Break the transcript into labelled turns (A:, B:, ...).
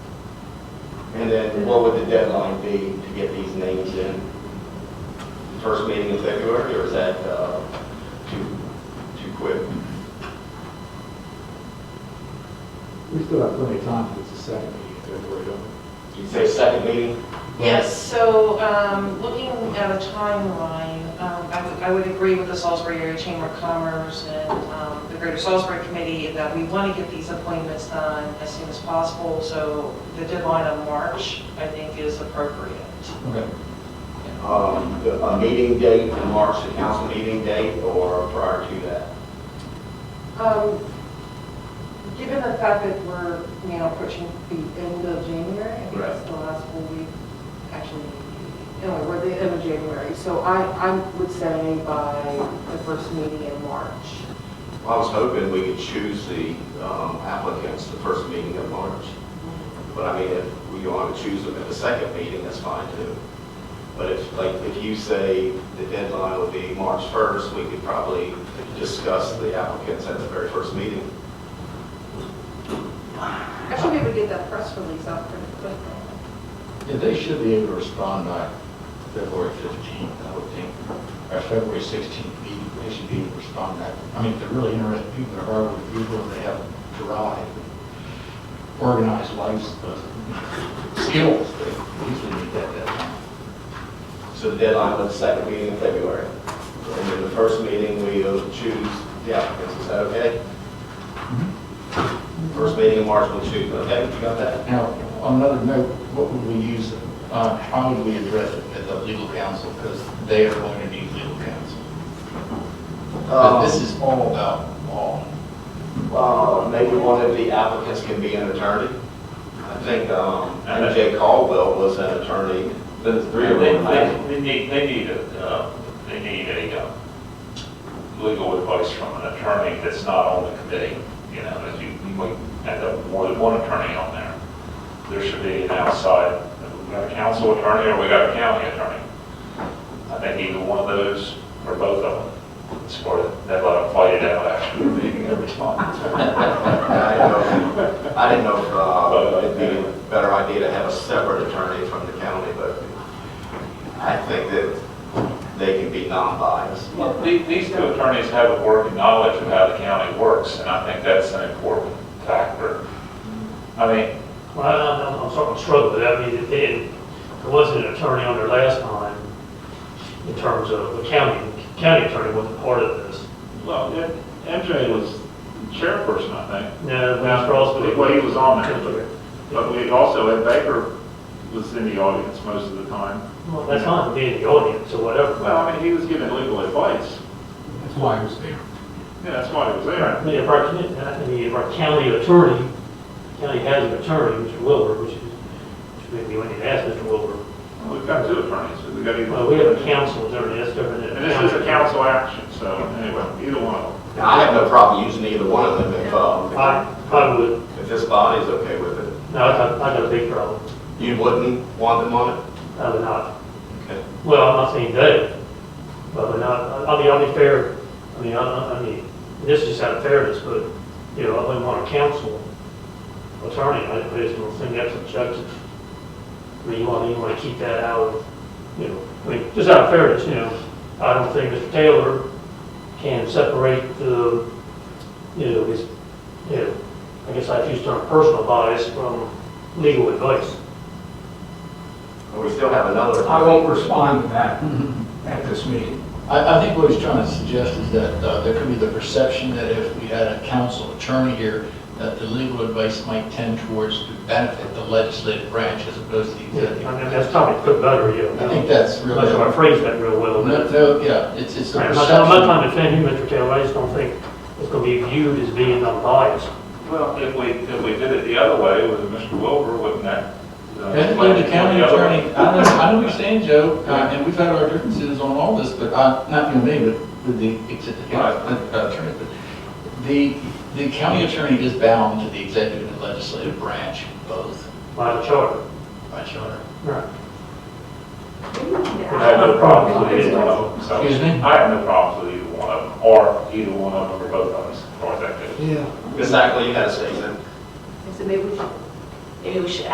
A: And then what would the deadline be to get these names in? First meeting in February, or is that uh, too, too quick?
B: We still have plenty of time, if it's the second meeting, in February, don't we?
A: You say second meeting?
C: Yes, so um, looking at a timeline, um, I would- I would agree with the Salisbury Area Chamber of Commerce and um, the Greater Salisbury Committee that we want to get these appointments done as soon as possible, so the deadline of March, I think, is appropriate.
A: Um, the- A meeting date in March, the council meeting date, or prior to that?
C: Um, Given the fact that we're, you know, approaching the end of January, I think it's
A: Right.
C: the last full week, actually, anyway, we're the end of January, so I, I would say by the first meeting in March.
A: I was hoping we could choose the um, applicants the first meeting in March. But I mean, if we want to choose them at the second meeting, that's fine too. But if, like, if you say the deadline would be March 1st, we could probably discuss the applicants at the very first meeting.
C: Actually, we would get that press release out pretty quick.
D: Yeah, they should be able to respond by February 15th, I would think, or February 16th meeting, they should be able to respond that. I mean, if they're really interested people, they're hardwood people, and they have drive, organized life uh, skills, they usually need that deadline.
A: So the deadline was the second meeting in February. And then the first meeting, we'll choose the applicants, is that okay?
B: Mm-hmm.
A: First meeting in March, we'll choose, okay, you got that?
D: Now, on another note, what would we use, uh, how would we address it as a legal counsel? Because they are going to need legal counsel.
A: Um,
D: But Uh, this is all about law.
A: Uh, Maybe one of the applicants can be an attorney. I think um, MJ Caldwell was an attorney.
E: The three of them, they, they need, they need, a, uh, they need a, uh, legal advice from an attorney that's not on the committee, you know, as you, you might end up with more than one attorney on there. There should be an outside, we got a council attorney or we got a county attorney. I think either one of those or both of them, it's part of, they let them fight it out after the meeting every time.
A: I don't- I didn't know if uh, it'd be a better idea to have a separate attorney from the county, but I think that they can be non-biased.
E: Well, the- These two attorneys have a working knowledge of how the county works, and I think that's an important factor. I mean,
F: Well, I- I'm, I'm sort of struggling with that. I mean, if they, had- there wasn't an attorney on there last time in terms of the county, county attorney wasn't part of this.
E: well, yeah, MJ was chairperson, I think.
F: No, Mass Ross. but-
E: Well, he was on there.
F: Okay.
E: But we also, Ed Baker was in the audience most of the time.
F: Well, That's fine, being the audience or whatever.
E: Well, I mean, he was giving legal advice.
B: That's why I was there.
E: Yeah, that's why he was
F: I
E: there.
F: mean, if our, I mean, if our county attorney, county has an attorney, Mr. Wilbur, which is, which maybe we need to ask Mr. Wilbur.
E: We've got two attorneys. We've got either.
F: Well, we have a council attorney, that's different than.
E: And this is a council action, so anyway, either one of them.
A: Now, I have no problem using either one of them if, uh,
F: I, I would,
A: if this body's okay with it.
F: no, I got, I got a big problem.
A: You wouldn't want them on it?
F: I would not.
A: Okay.
F: Well, I'm not saying that, but not, I mean, I'll be fair, I mean, I, I I mean, this is out of fairness, but, you know, I wouldn't want a council attorney, I I just don't think that's objective. I mean, you want, you want to keep that out of, you know, I mean, just out of fairness, you know, I don't think Mr. Taylor can separate the, you know, his, you know, I guess I use the term personal bias from legal advice.
A: We still have another.
B: I won't respond to that at this meeting.
D: I, I think what he's trying to suggest is that uh, there could be the perception that if we had a council attorney here, that the legal advice might tend towards to benefit the legislative branch as opposed to the
F: Yeah, I mean,
D: executive.
F: that's probably put better, you know.
D: I think that's
F: I'm not sure I
D: really,
F: phrased that real well.
D: no,
F: but-
D: no, yeah, it's, it's a
F: I'm not I'm not
D: perception.
F: trying to offend you, Mr. Taylor, I just don't think it's going to be viewed as being unbiased.
E: Well, if we, if we did it the other way with Mr. Wilbur, wouldn't that? uh,
D: As the county
E: the other way?
D: attorney, I know, I know what you're saying, Joe, uh, and we've had our differences on all this, but I, not you and me, but with the executive uh,
E: Right.
D: attorney. but The, the county attorney is bound to the executive and legislative branch, both
F: by the charter.
D: by charter.
F: Right.
E: I have no problems with either one
C: Well,
E: of them, so.
D: Excuse me?
E: I have no problems with either one of them, or either one of them, or both of them, as far as that goes.
B: Yeah.
A: Ms. Ackley, you had a statement.
G: So maybe we should, maybe we should